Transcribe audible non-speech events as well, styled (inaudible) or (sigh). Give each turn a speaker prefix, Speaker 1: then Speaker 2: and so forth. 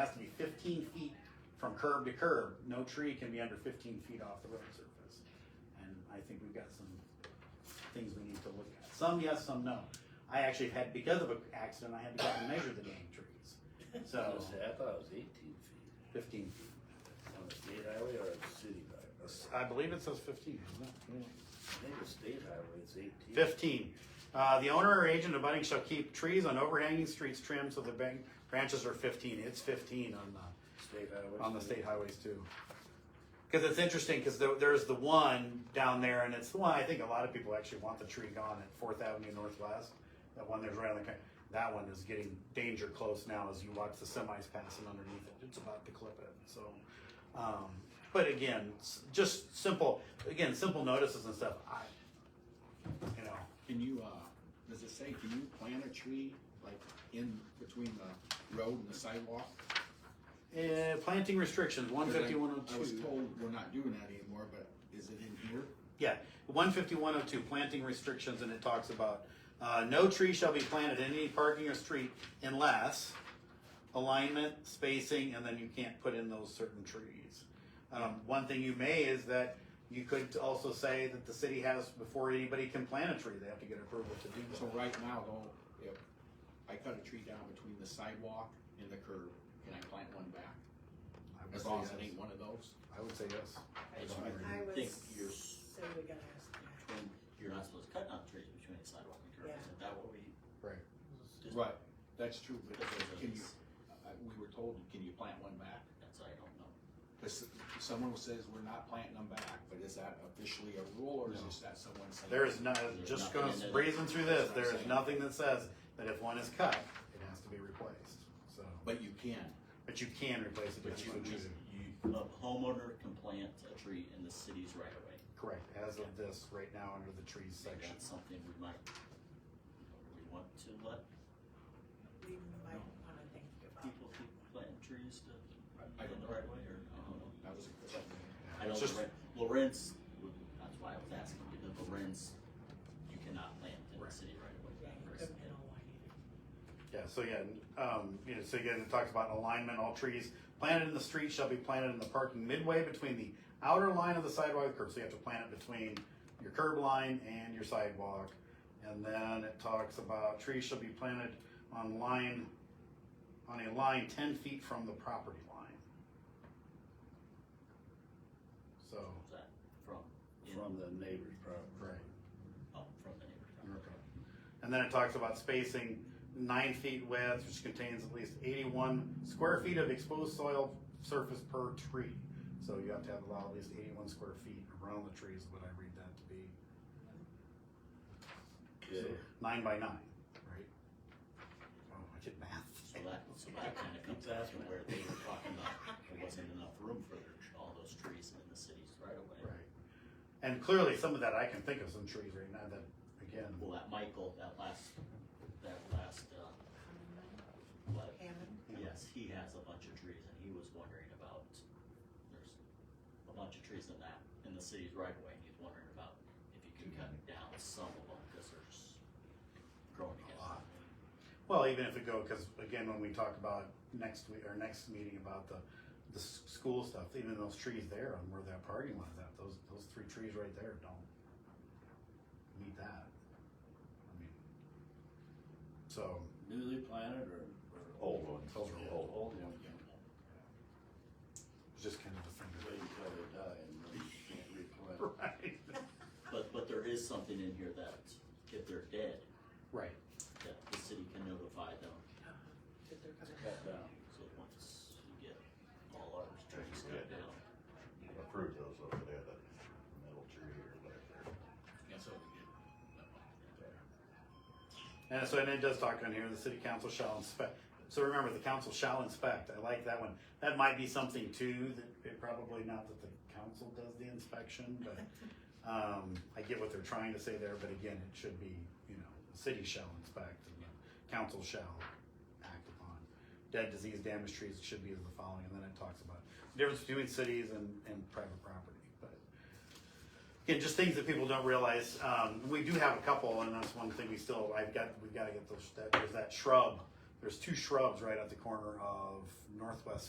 Speaker 1: has to be fifteen feet from curb to curb, no tree can be under fifteen feet off the road surface. And I think we've got some things we need to look at, some yes, some no. I actually had, because of an accident, I had to go out and measure the damn trees,
Speaker 2: I
Speaker 1: so
Speaker 2: was- I thought it was eighteen feet
Speaker 1: fifteen feet.
Speaker 2: on the state highway or a city
Speaker 1: I
Speaker 2: highway.
Speaker 1: believe it says fifteen,
Speaker 2: I think the state highway is eighteen.
Speaker 1: Fifteen, uh, the owner or agent abutting shall keep trees on overhanging streets trimmed so the bank, branches are fifteen, it's fifteen on the.
Speaker 2: State highway.
Speaker 1: on the state highways too. Because it's interesting, because there, there's the one down there, and it's the one I think a lot of people actually want the tree gone at Fourth Avenue Northwest. That one there's right on the, co- that one is getting danger close now as you watch the semis passing underneath it. It's about to clip it, so. Um, but again, s- just simple, again, simple notices and stuff. I, you know,
Speaker 3: Can you, uh, does it say, can you plant a tree, like, in between the road and the sidewalk?
Speaker 1: eh, planting restrictions, one
Speaker 3: 'Cause I-
Speaker 1: fifty, one oh
Speaker 3: I was
Speaker 1: two.
Speaker 3: told we're not doing that anymore, but is it in here?
Speaker 1: Yeah, one fifty, one oh two, planting restrictions, and it talks about, uh, no tree shall be planted in any parking or street unless alignment, spacing, and then you can't put in those certain trees. Um, one thing you may is that you could also say that the city has, before anybody can plant a tree, they have to get approval to do
Speaker 3: So
Speaker 1: so.
Speaker 3: right now, though, if I cut a tree down between the sidewalk and the curb, can I plant one back? As long as it ain't one of those?
Speaker 1: I would say yes.
Speaker 4: I don't
Speaker 5: I would
Speaker 4: think
Speaker 5: say
Speaker 4: you're,
Speaker 5: we're gonna ask them.
Speaker 4: you're not supposed to cut down trees between the sidewalk and curb, isn't that what we?
Speaker 1: Right.
Speaker 4: Just-
Speaker 3: Right, that's true, but can you,
Speaker 4: That's
Speaker 3: uh, we were told, can you plant one back?
Speaker 4: what I don't know.
Speaker 3: Because someone says we're not planting them back, but is that officially a rule, or is
Speaker 1: No.
Speaker 3: just that someone saying?
Speaker 1: There is no, just going, breezing through this, there is nothing that says that if one is cut, it has to be replaced, so.
Speaker 3: But you can,
Speaker 1: But you can replace it
Speaker 4: But
Speaker 1: if
Speaker 4: you
Speaker 1: you
Speaker 3: Типа,
Speaker 4: would
Speaker 1: choose
Speaker 4: just,
Speaker 1: it.
Speaker 4: you, a homeowner can plant a tree in the city's right of way.
Speaker 1: Correct, as of this, right now, under the trees
Speaker 4: Maybe
Speaker 1: section.
Speaker 4: That's something we might, we want to let
Speaker 5: We might wanna think about.
Speaker 4: people who plant trees to,
Speaker 3: I- I
Speaker 4: in
Speaker 3: don't
Speaker 4: the
Speaker 3: know.
Speaker 4: right of way, or, I don't know.
Speaker 3: that was a question.
Speaker 4: I know
Speaker 1: It's just-
Speaker 4: Loren- Lorenz, that's why I was asking, because Lorenz, you cannot plant in the
Speaker 1: Right.
Speaker 4: city right away.
Speaker 5: Yeah, you
Speaker 4: Chris.
Speaker 5: don't know why either.
Speaker 1: Yeah, so yeah, um, you know, so again, it talks about alignment, all trees planted in the street shall be planted in the parking midway between the outer line of the sidewalk and curb, so you have to plant it between your curb line and your sidewalk. And then it talks about trees shall be planted on line, on a line ten feet from the property line. So,
Speaker 4: Is that from, in-
Speaker 2: From the neighbor's property.
Speaker 1: right.
Speaker 4: oh, from the neighbor's
Speaker 1: Okay. And then it talks about spacing nine feet width, which contains at least eighty-one square feet of exposed soil surface per tree. So you have to have allow at least eighty-one square feet around the trees, what I read that to be. So,
Speaker 2: Okay.
Speaker 1: Nine by nine, right? Oh, I did math.
Speaker 4: So that, so that kind of comes out to where they were talking about, there wasn't enough room for their- all those trees in the cities right away.
Speaker 1: Right. And clearly, some of that, I can think of some trees right now that, again,
Speaker 4: Well, that Michael, that last, that last, uh, what,
Speaker 5: (laughs) Hammond,
Speaker 4: yes, he has a bunch of trees and he was wondering about, there's a bunch of trees in that, in the cities right away. and He's wondering about if you could cut down some of them, cause they're just growing
Speaker 1: A lot.
Speaker 4: together.
Speaker 1: Well, even if it go, because again, when we talk about next week, or next meeting about the, the s- school stuff, even those trees there on where that parking lot is at, those, those three trees right there don't meet that. I mean, so,
Speaker 2: Newly planted or, or old ones?
Speaker 1: Those are old.
Speaker 2: Old ones.
Speaker 1: it's just kind of a thing.
Speaker 2: Wait until they die and then you can't replant.
Speaker 1: (laughs) Right.
Speaker 4: But, but there is something in here that if they're dead,
Speaker 1: Right.
Speaker 4: that the city can notify them
Speaker 5: uh, that they're gonna.
Speaker 2: Cut down.
Speaker 4: So once you get all our trees cut down,
Speaker 6: approve those over there, that metal tree or whatever.
Speaker 3: That's what we did.
Speaker 1: And so, and it does talk on here, the city council shall inspect, so remember, the council shall inspect, I like that one. That might be something too, that it probably not that the council does the inspection, but, um, I get what they're trying to say there, but again, it should be, you know, the city shall inspect and the council shall act upon. Dead, disease, damaged trees should be as the following, and then it talks about the difference between cities and, and private property, but Again, just things that people don't realize, um, we do have a couple, and that's one thing we still, I've got, we've gotta get those, that, there's that shrub there's two shrubs right at the corner of Northwest